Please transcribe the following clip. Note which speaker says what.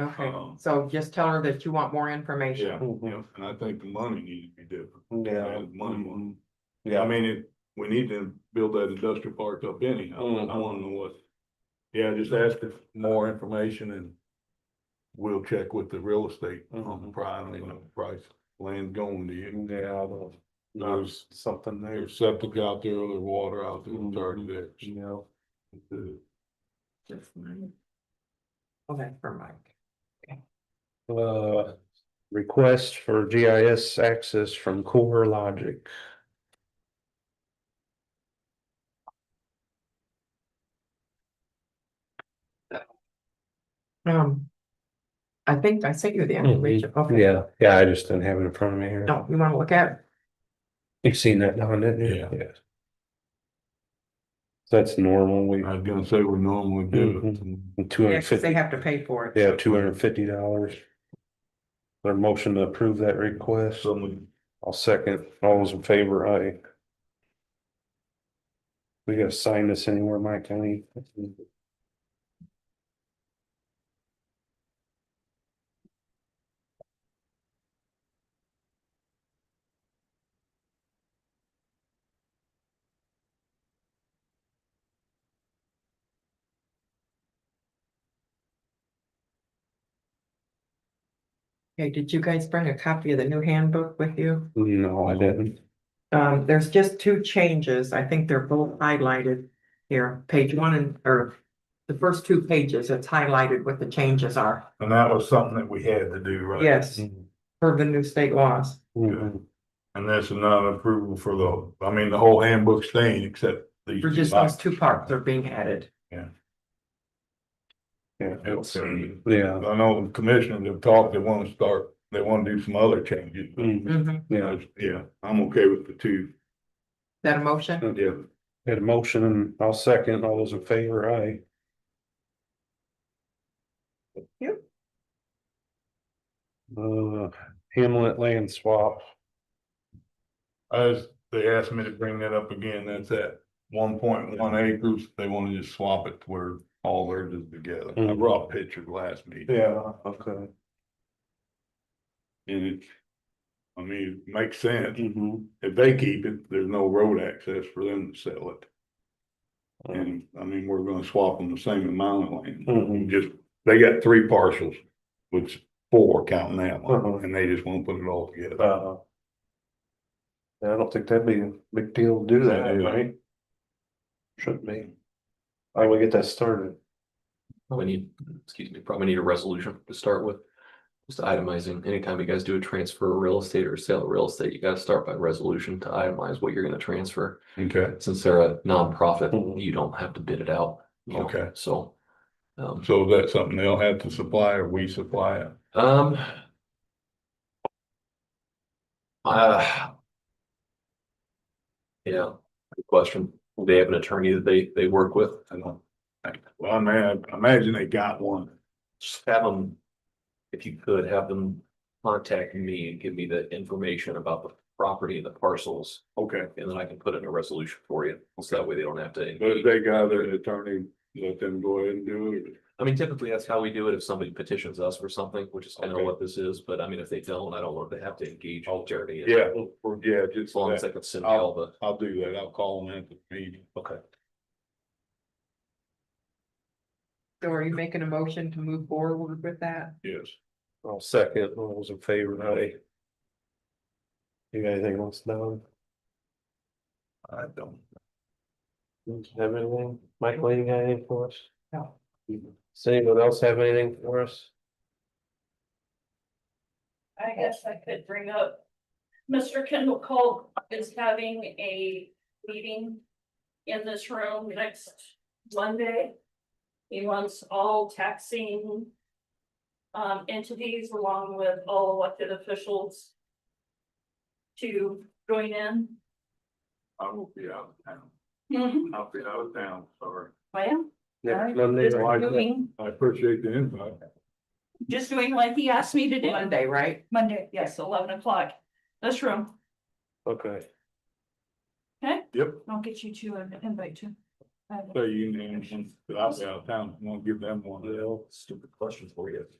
Speaker 1: Okay,
Speaker 2: Um,
Speaker 1: so just tell her that you want more information.
Speaker 2: Yeah, yeah, and I think the money needs to be different.
Speaker 3: Yeah. Mm-hmm.
Speaker 2: Add Money, money. I
Speaker 3: Yeah,
Speaker 2: mean, it, we need to build that industrial park up anyhow. I
Speaker 3: Mm-hmm.
Speaker 2: wanna know what. Yeah, just ask for more information and we'll check with the real estate on the
Speaker 3: Mhm.
Speaker 2: price, you know, price, land going to you.
Speaker 3: yeah, the- there's something there,
Speaker 2: There's septic out there, there's water out there, it's
Speaker 3: Mhm.
Speaker 2: already there.
Speaker 3: you know.
Speaker 1: Just mine. Oh, that's for Mike.
Speaker 3: Uh, request for GIS access from Core Logic.
Speaker 1: Um. I think I sent you the information, okay.
Speaker 3: Yeah, yeah, I just didn't have it in front of me here.
Speaker 1: No, you wanna look at, it?
Speaker 3: You've seen that now, didn't you?
Speaker 2: Yeah.
Speaker 3: Yes. That's normal, we,
Speaker 2: I was gonna say we normally do
Speaker 3: Mm-hmm.
Speaker 2: it.
Speaker 3: two
Speaker 1: yeah,
Speaker 3: hundred
Speaker 1: 'cause they
Speaker 3: fifty,
Speaker 1: have to pay for it.
Speaker 3: yeah, two hundred fifty dollars. Their motion to approve that request,
Speaker 2: Someone,
Speaker 3: I'll second, all those in favor, aye. We gotta sign this anywhere, Mike, I mean.
Speaker 1: Okay, did you guys bring a copy of the new handbook with you?
Speaker 3: No, I didn't.
Speaker 1: Um, there's just two changes, I think they're both highlighted here, page one and, or. The first two pages, it's highlighted what the changes are,
Speaker 2: and that was something that we had to do, right?
Speaker 1: yes,
Speaker 3: Mm-hmm.
Speaker 1: for the new state laws.
Speaker 3: Mhm.
Speaker 2: And that's not approval for the, I mean, the whole handbook staying except these.
Speaker 1: For just those two parts are being added,
Speaker 2: I
Speaker 3: Yeah,
Speaker 2: know the commissioners have talked, they wanna start, they wanna do some other changes, but,
Speaker 3: Mhm.
Speaker 1: Mhm.
Speaker 3: yeah,
Speaker 2: yeah, I'm okay with the two.
Speaker 1: that a motion?
Speaker 2: Yeah.
Speaker 3: had a motion, and I'll second, all those in favor, aye.
Speaker 1: Yep.
Speaker 3: Uh, Hamlet land swap.
Speaker 2: I just, they asked me to bring that up again, that's at one point one acres, they wanna just swap it to where all theirs is together. I
Speaker 3: Mhm.
Speaker 2: brought a picture last meeting.
Speaker 3: Yeah, okay.
Speaker 2: And it, I mean, it makes sense,
Speaker 3: Mm-hmm.
Speaker 2: if they keep it, there's no road access for them to sell it. And I mean, we're gonna swap them the same amount of land. We
Speaker 3: Mhm.
Speaker 2: Just, they got three parcels, which four counting that
Speaker 3: Uh-huh.
Speaker 2: one, and they just won't put it all together.
Speaker 3: Uh, I don't think that'd be a big deal to do that,
Speaker 2: Yeah.
Speaker 3: right? Shouldn't be. I will get that started.
Speaker 4: Probably need, excuse me, probably need a resolution to start with. Just itemizing, anytime you guys do a transfer of real estate or sale of real estate, you gotta start by resolution to itemize what you're gonna transfer.
Speaker 2: Okay.
Speaker 4: Since they're a
Speaker 3: Mhm.
Speaker 4: nonprofit, you don't have to bid it out. you know,
Speaker 2: Okay.
Speaker 4: So. Um,
Speaker 2: So that's something they'll have to supply or we supply it?
Speaker 4: um. Uh. Yeah, good question. Do They have an attorney that they, they work with.
Speaker 2: I don't. Well, I mean, I imagine they got one.
Speaker 4: just have them, if you could, have them contact me and give me the information about the property and the parcels,
Speaker 2: Okay.
Speaker 4: and then I can put in a resolution for you. So that way they don't have
Speaker 2: But if
Speaker 4: to.
Speaker 2: they got their attorney, let them go ahead and do it.
Speaker 4: I mean, typically, that's how we do it if somebody petitions us for something, which is kind of
Speaker 2: Okay.
Speaker 4: what this is, but I mean, if they don't, I don't know if they have to engage an attorney.
Speaker 2: Yeah, or- yeah,
Speaker 4: As
Speaker 2: just
Speaker 4: long as
Speaker 2: that.
Speaker 4: they can send me all the,
Speaker 2: I'll do that. I'll call them at the meeting.
Speaker 4: okay.
Speaker 1: So are you making a motion to move forward with that?
Speaker 2: Yes.
Speaker 3: I'll second, all those in favor, aye. You got anything else down?
Speaker 2: I don't.
Speaker 3: Have anything, Michael, you got anything for us?
Speaker 1: No.
Speaker 3: Does anyone else have anything for us?
Speaker 5: I guess I could bring up, Mr. Kendall Cole is having a meeting in this room next Monday. He wants all taxing um, entities along with all elected officials to join in.
Speaker 2: I will be out of town.
Speaker 5: Well,
Speaker 2: I'll be out of town, sorry.
Speaker 3: Next
Speaker 5: Alright,
Speaker 3: Monday,
Speaker 5: just
Speaker 3: July
Speaker 5: doing,
Speaker 2: I appreciate the invite.
Speaker 5: just doing what he asked me to do.
Speaker 1: Monday, right?
Speaker 5: Monday, yes, eleven o'clock, this room.
Speaker 3: Okay,
Speaker 2: Yep.
Speaker 5: I'll get you to an invite to. I have a-
Speaker 2: So you can, I'll be out of town. Won't give them one.
Speaker 4: Well, stupid question for you.